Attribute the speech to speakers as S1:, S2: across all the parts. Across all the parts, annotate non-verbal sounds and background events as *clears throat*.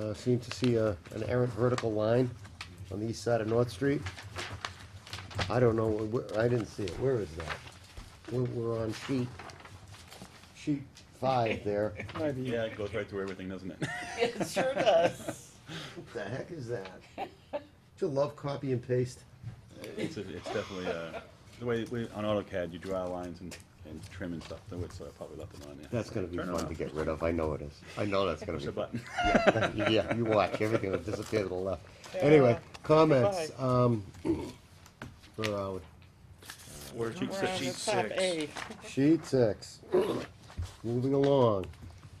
S1: Uh, seem to see a, an errant vertical line on the east side of North Street. I don't know, wh- wh- I didn't see it, where is that? We're, we're on sheet, sheet five there.
S2: Yeah, it goes right through everything, doesn't it? *laughs*
S3: It sure does.
S1: What the heck is that? Don't you love copy and paste?
S2: It's, a- it's definitely, uh, the way, we, on AutoCAD, you draw lines and, and trim and stuff, the way it's uh, probably left it on there.
S1: That's gonna be
S2: Turn
S1: fun
S2: around.
S1: to get rid of, I know it is. I know that's gonna
S2: Push
S1: be.
S2: a
S1: *laughs*
S2: button.
S1: Yeah, you watch, everything will disappear to the left.
S3: Yeah.
S1: Anyway, comments, um, *clears throat* where are we?
S3: We're
S4: We're
S3: on
S4: sheet
S3: the top
S4: six.
S3: A.
S1: Sheet six, moving along,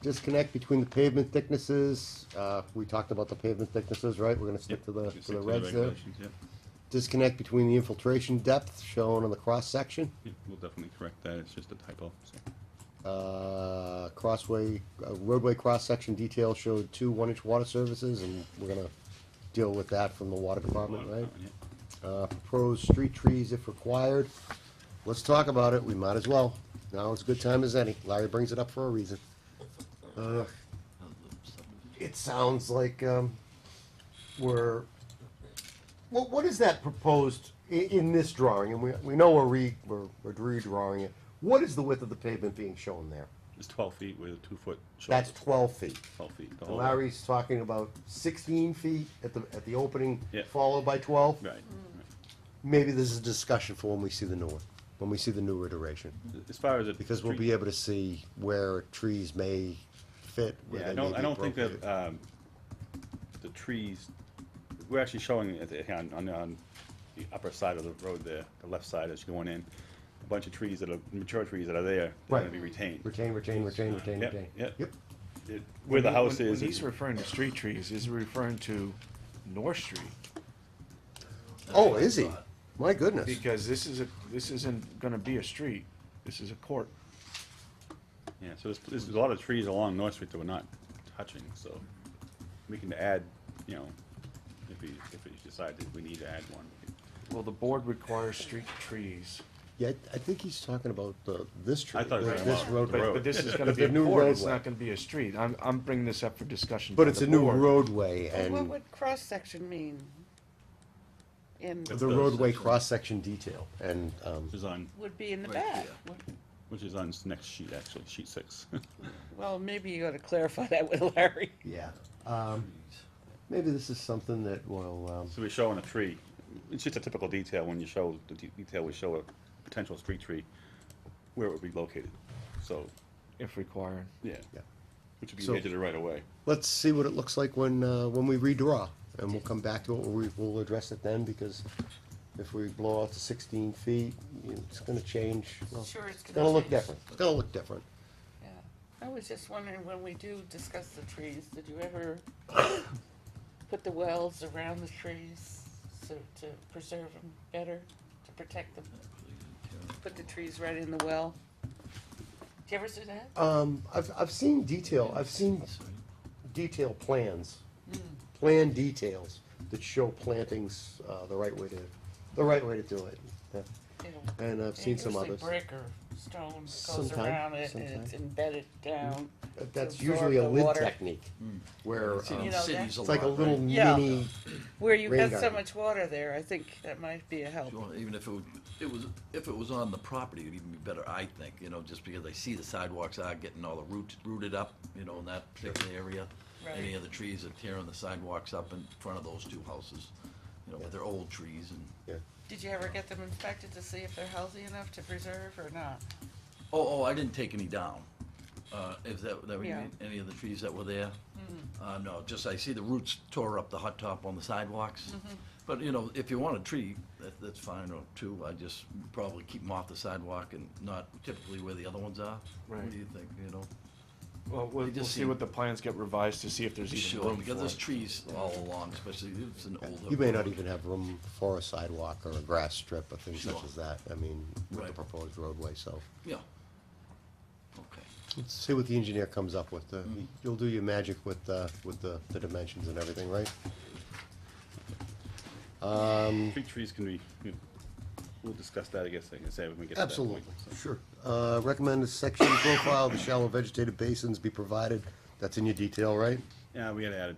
S1: disconnect between the pavement thicknesses, uh, we talked about the pavement thicknesses, right? We're gonna stick to the,
S2: Yep, you
S1: to
S2: stick
S1: the reds there.
S2: regulations, yep.
S1: Disconnect between the infiltration depth shown on the cross-section,
S2: Yep, We'll definitely correct that, it's just a typo, so.
S1: uh, crossway, uh, roadway cross-section detail showed two one-inch water services, and we're gonna deal with that from the water department, right?
S2: Yep.
S1: uh, proposed street trees if required. Let's talk about it, we might as well. Now is a good time as any. Larry brings it up for a reason. Uh, It sounds like, um, we're, what, what is that proposed i- in this drawing? And we, we know we're re, we're we're redrawing it. What is the width of the pavement being shown there?
S2: It's twelve feet with a two-foot shoulder.
S1: That's twelve feet.
S2: Twelve feet. the
S1: And
S2: whole-
S1: Larry's talking about sixteen feet at the, at the opening,
S2: Yeah.
S1: followed by twelve?
S2: Right. right.
S1: maybe this is a discussion for when we see the new one, when we see the new iteration,
S2: As far as it.
S1: because we'll be able to see where trees may fit. where
S2: Yeah, I
S1: they
S2: don't,
S1: may
S2: I
S1: be
S2: don't think that,
S1: appropriate.
S2: um, the trees, we're actually showing it at the- on, on, on the upper side of the road there, the left side as you're going in, a bunch of trees that are, mature trees that are there, they're gonna
S1: Right.
S2: be retained.
S1: Retain, retain, retain, retain,
S2: Yep,
S1: retain.
S2: yep.
S1: Yep,
S2: It- Where the
S4: When he-
S2: house
S4: when-
S2: is,
S4: When he's
S2: is-
S4: referring to street trees, is he referring to North Street?
S1: oh, is he? My goodness,
S4: Because this is a, this isn't gonna be a street, this is a court.
S2: yeah, so there's, there's a lot of trees along North Street that we're not touching, so we can add, you know, if we, if we decide that we need to add one. we can-
S4: Well, the board requires street trees,
S1: yeah, I- I think he's talking about the, this tree,
S2: I thought he
S1: this
S2: was talking
S1: this
S2: about
S1: road.
S2: the
S4: but,
S2: road.
S4: but this is gonna
S1: But
S4: be a
S1: the new
S4: court, it's
S1: roadway.
S4: not gonna be a street. I'm, I'm bringing this up for discussion.
S1: But
S4: by
S1: it's
S4: the
S1: a new
S4: board.
S1: roadway
S3: Well, What
S1: and
S3: would cross-section mean? And
S1: the roadway cross-section detail, and, um,
S2: Which is on,
S3: would be in the back.
S2: which is on next sheet, actually, sheet six. *laughs*
S3: Well, maybe you ought to clarify that with Larry.
S1: yeah. Um, Maybe this is something that will, um,
S2: So we're showing a tree. It's just a typical detail when you show, the de- detail we show a potential street tree, where it would be located. So,
S4: If required.
S2: yeah,
S1: yeah.
S2: which would be
S1: So-
S2: the edge of the right of way.
S1: let's see what it looks like when, uh, when we redraw, and we'll come back to it, we, we'll address it then, because if we blow out to sixteen feet, you know, it's gonna change. Well,
S3: Sure, it's
S1: It's gonna look
S3: change.
S1: different, it's gonna look different.
S3: Yeah. I was just wondering, when we do discuss the trees, did you
S1: *coughs*
S3: ever put the wells around the trees so to preserve them better, to protect them? Put the trees right in the well? Did you ever do that?
S1: Um, I've, I've seen detail, I've seen detail plans,
S3: Hmm.
S1: plan details that show plantings, uh, the right way to, the right way to do it. Yeah.
S3: You know,
S1: And I've seen some
S3: usually
S1: others.
S3: Brick or stone goes
S1: Sometime,
S3: around it and it's
S1: sometime. Mm-hmm.
S3: embedded down.
S1: That- That's
S3: absorb
S1: usually a
S3: the
S1: lid
S3: water.
S1: technique, where,
S3: in
S1: um,
S3: know,
S5: cities a
S1: it's like a
S5: lot,
S1: little
S5: right?
S3: Yeah.
S1: mini,
S3: Where you
S1: Rain
S3: have so
S1: garden.
S3: much water there, I think that might be a help.
S5: Well, Even if it was, it was, if it was on the property, it'd even be better, I think, you know, just because I see the sidewalks are getting all the roots rooted up, you know, in that particular area. Any
S3: Right.
S5: of the trees are tearing the sidewalks up in front of those two houses, you know, but they're old trees and,
S1: yeah.
S3: Did you ever get them inspected to see if they're healthy enough to preserve or not?
S5: oh, oh, I didn't take any down. Uh, is that, that, we-
S3: Yeah.
S5: any of the trees that were there? Uh, no, just I see the roots tore up the hot top on the sidewalks. But, you know, if you want a tree, that, that's fine, or two, I just probably keep them off the sidewalk and not typically where the other ones are. What
S4: Right.
S5: do you think, you know?
S4: Well, we'll,
S5: You
S4: we'll
S5: just
S4: see
S5: see-
S4: what the plans get revised to see if there's even
S5: Sure,
S4: room for
S5: because there's
S4: it.
S5: trees all along, especially if it's an older.
S1: You may not
S5: road.
S1: even have room for a sidewalk or a grass strip or things such
S5: Sure.
S1: as that, I mean, with the
S5: Right.
S1: proposed roadway, so.
S4: e-
S5: Yeah. Okay.
S1: Let's see what the engineer comes up with, uh, you'll do your magic with, uh, with the, the dimensions and everything, right?
S2: Street trees can be, you know, we'll discuss that, I guess, like I say, when we get to that
S1: Absolutely,
S2: point. so.
S1: sure. Uh, recommend a section profile, the shallow vegetated basins be provided, that's in your detail, right?
S2: Yeah, we had to add a